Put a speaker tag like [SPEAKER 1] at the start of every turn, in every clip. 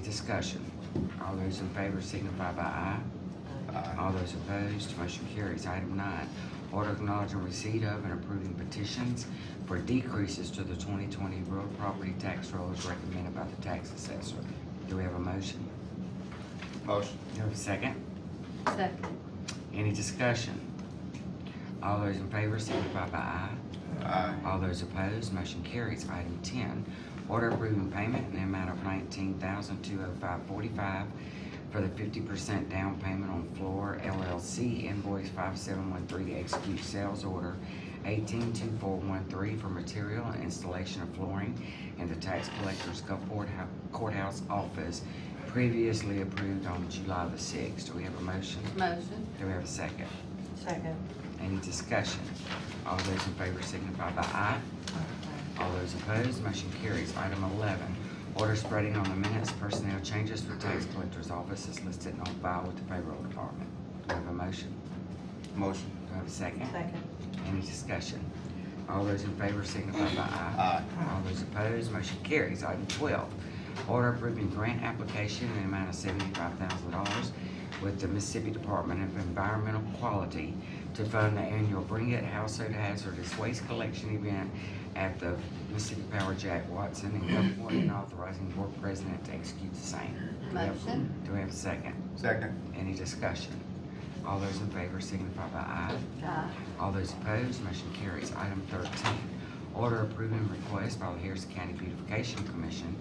[SPEAKER 1] discussion? All those in favor signify by aye. All those opposed, motion carries. Item nine, order acknowledging receipt of and approving petitions for decreases to the twenty twenty real property tax roll as recommended by the tax assessor. Do we have a motion?
[SPEAKER 2] Motion.
[SPEAKER 1] Do we have a second?
[SPEAKER 3] Second.
[SPEAKER 1] Any discussion? All those in favor signify by aye.
[SPEAKER 2] Aye.
[SPEAKER 1] All those opposed, motion carries. Item ten, order approving payment in the amount of nineteen thousand two oh five forty-five for the fifty percent down payment on Floor LLC invoice five seven one three, execute sales order eighteen two four one three for material and installation of flooring in the tax collector's Gulfport Hou- courthouse office previously approved on July the sixth. Do we have a motion?
[SPEAKER 3] Motion.
[SPEAKER 1] Do we have a second?
[SPEAKER 4] Second.
[SPEAKER 1] Any discussion? All those in favor signify by aye. All those opposed, motion carries. Item eleven, order spreading on the minutes personnel changes for tax collector's office is listed on file with the payroll department. Do I have a motion?
[SPEAKER 2] Motion.
[SPEAKER 1] Do I have a second?
[SPEAKER 4] Second.
[SPEAKER 1] Any discussion? All those in favor signify by aye.
[SPEAKER 2] Aye.
[SPEAKER 1] All those opposed, motion carries. Item twelve, order approving grant application in the amount of seventy-five thousand dollars with the Mississippi Department of Environmental Quality to fund the annual Bring It Household Hazardous Waste Collection Event at the Mississippi Power Jack Watson in Gulfport and authorizing board president to execute the same. Do we have-
[SPEAKER 3] Motion.
[SPEAKER 1] Do we have a second?
[SPEAKER 2] Second.
[SPEAKER 1] Any discussion? All those in favor signify by aye.
[SPEAKER 3] Aye.
[SPEAKER 1] All those opposed, motion carries. Item thirteen, order approving request by the Harrison County Beautification Commission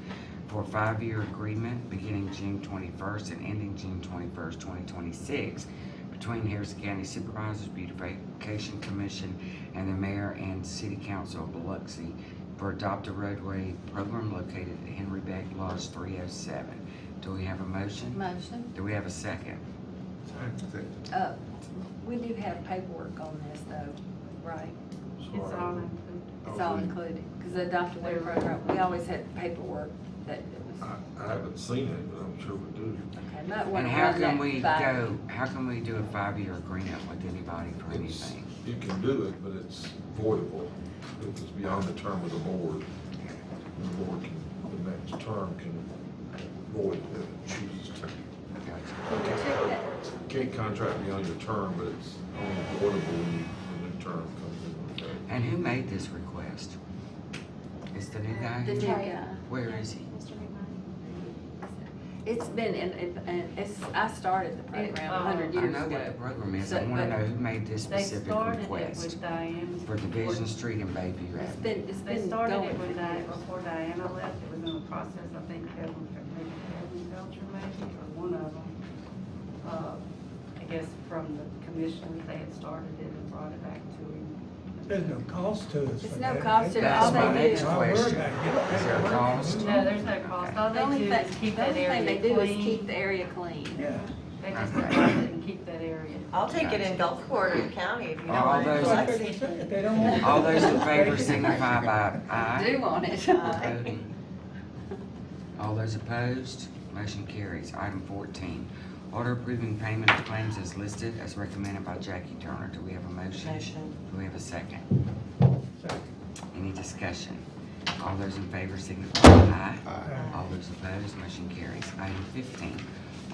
[SPEAKER 1] for a five-year agreement beginning June twenty-first and ending June twenty-first, twenty twenty-six between Harrison County Supervisors Beautification Commission and the mayor and city council of Biloxi for Adopt a Roadway program located at Henry Beck Lodge three oh seven. Do we have a motion?
[SPEAKER 3] Motion.
[SPEAKER 1] Do we have a second?
[SPEAKER 2] Second.
[SPEAKER 3] Uh, we do have paperwork on this though, right?
[SPEAKER 5] It's all included.
[SPEAKER 3] It's all included, because the adopt away program, we always had paperwork that it was,
[SPEAKER 5] I, I haven't seen it, but I'm sure we do.
[SPEAKER 3] okay, might want
[SPEAKER 1] And
[SPEAKER 3] to
[SPEAKER 1] how
[SPEAKER 3] run
[SPEAKER 1] can we
[SPEAKER 3] that by.
[SPEAKER 1] go, how can we do a five-year agreement with anybody for
[SPEAKER 5] It's,
[SPEAKER 1] anything?
[SPEAKER 5] you can do it, but it's voidable. It's beyond the term of the board. The board can, the next term can void it if it chooses to.
[SPEAKER 1] Gotcha.
[SPEAKER 3] Can we check that?
[SPEAKER 5] Can't contract beyond your term, but it's only voidable when you, when the term comes in. effect.
[SPEAKER 1] And who made this request? It's the new
[SPEAKER 3] The
[SPEAKER 1] guy?
[SPEAKER 3] new guy.
[SPEAKER 1] Where is he?
[SPEAKER 6] Mr. McMurray?
[SPEAKER 3] It's been, and, and- and it's, I started the program
[SPEAKER 6] uh,
[SPEAKER 3] a hundred
[SPEAKER 1] I
[SPEAKER 3] years
[SPEAKER 1] know what the
[SPEAKER 3] ago.
[SPEAKER 1] program is, I
[SPEAKER 3] So,
[SPEAKER 1] wanna
[SPEAKER 3] but
[SPEAKER 1] know who made this
[SPEAKER 6] They
[SPEAKER 1] specific
[SPEAKER 6] started it
[SPEAKER 1] request
[SPEAKER 6] with Diane's.
[SPEAKER 1] for Division Street and Bayview
[SPEAKER 3] It's
[SPEAKER 1] Avenue.
[SPEAKER 3] been, it's
[SPEAKER 6] They
[SPEAKER 3] been
[SPEAKER 6] started
[SPEAKER 3] going
[SPEAKER 6] it
[SPEAKER 3] for
[SPEAKER 6] with Diane,
[SPEAKER 3] years.
[SPEAKER 6] before Diana left, it was in the process, I think Kevin, maybe Kevin Belcher maybe, or one of them. Uh, I guess from the commissioners, they had started it and brought it back to him.
[SPEAKER 7] There's no cost to us.
[SPEAKER 3] It's
[SPEAKER 7] for
[SPEAKER 3] no
[SPEAKER 7] that.
[SPEAKER 3] cost to us.
[SPEAKER 1] That's
[SPEAKER 3] All
[SPEAKER 1] my
[SPEAKER 3] they
[SPEAKER 1] next
[SPEAKER 3] do-
[SPEAKER 7] Why worry
[SPEAKER 1] question.
[SPEAKER 7] about it? You don't
[SPEAKER 1] Is
[SPEAKER 7] pay
[SPEAKER 1] there a
[SPEAKER 7] for it.
[SPEAKER 1] cost?
[SPEAKER 6] No, there's no cost, all
[SPEAKER 3] The
[SPEAKER 6] they
[SPEAKER 3] only
[SPEAKER 6] do
[SPEAKER 3] thing,
[SPEAKER 6] is keep
[SPEAKER 3] the
[SPEAKER 6] that
[SPEAKER 3] only thing they
[SPEAKER 6] area
[SPEAKER 3] do is keep
[SPEAKER 6] clean.
[SPEAKER 3] the area clean.
[SPEAKER 7] Yeah.
[SPEAKER 6] They just deposit and keep that area.
[SPEAKER 4] I'll take it in Gulfport or county if you don't
[SPEAKER 1] All
[SPEAKER 4] want
[SPEAKER 1] those-
[SPEAKER 4] it.
[SPEAKER 7] That's
[SPEAKER 4] Biloxi.
[SPEAKER 7] what they say. If they don't want it,
[SPEAKER 1] All those in
[SPEAKER 7] they
[SPEAKER 1] favor
[SPEAKER 7] can-
[SPEAKER 1] signify by aye.
[SPEAKER 3] Do on it.
[SPEAKER 1] Voting. Uh, All those opposed, motion carries. Item fourteen, order approving payment of claims as listed as recommended by Jackie Turner. Do we have a motion?
[SPEAKER 4] Motion.
[SPEAKER 1] Do we have a second?
[SPEAKER 7] Second.
[SPEAKER 1] Any discussion? All those in favor signify by aye.
[SPEAKER 7] Aye.
[SPEAKER 1] All those opposed, motion carries. Item fifteen,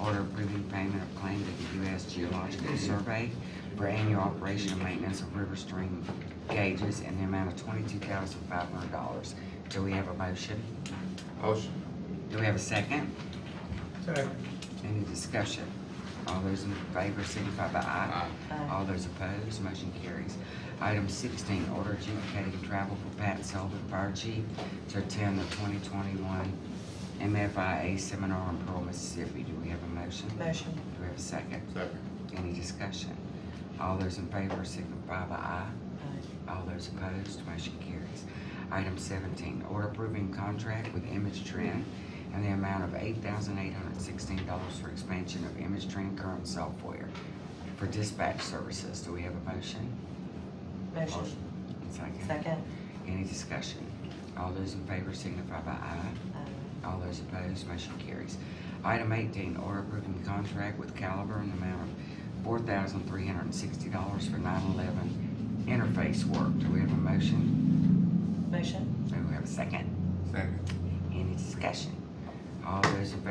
[SPEAKER 1] order approving payment of claim to the U.S. Geological Survey for annual operation and maintenance of river stream gauges in the amount of twenty-two thousand five hundred dollars. Do we have a motion?
[SPEAKER 2] Motion.
[SPEAKER 1] Do we have a second?
[SPEAKER 7] Second.
[SPEAKER 1] Any discussion? All those in favor signify by aye. All those opposed, motion carries. Item sixteen, order adjudicating travel for Pat Sullivan, Fire Chief, to attend the twenty twenty-one MFIA seminar in Pearl, Mississippi. Do we have a motion? Do
[SPEAKER 4] Motion.
[SPEAKER 1] we have a second?
[SPEAKER 2] Second.
[SPEAKER 1] Any discussion? All those in favor signify by aye. All those opposed, motion carries. Item seventeen, order approving contract with Image Trend and the amount of eight thousand eight hundred sixteen dollars for expansion of Image Trend current software for dispatch services. Do we have a motion?
[SPEAKER 4] Motion.
[SPEAKER 1] Second.
[SPEAKER 4] Second.
[SPEAKER 1] Any discussion? All those in favor signify by aye.
[SPEAKER 4] uh,
[SPEAKER 1] All those opposed, motion carries. Item eighteen, order approving contract with Caliber in the amount of four thousand three hundred and sixty dollars for nine eleven interface work. Do we have a motion?
[SPEAKER 4] Motion.
[SPEAKER 1] Do we have a second?
[SPEAKER 2] Second.
[SPEAKER 1] Any discussion? All those in favor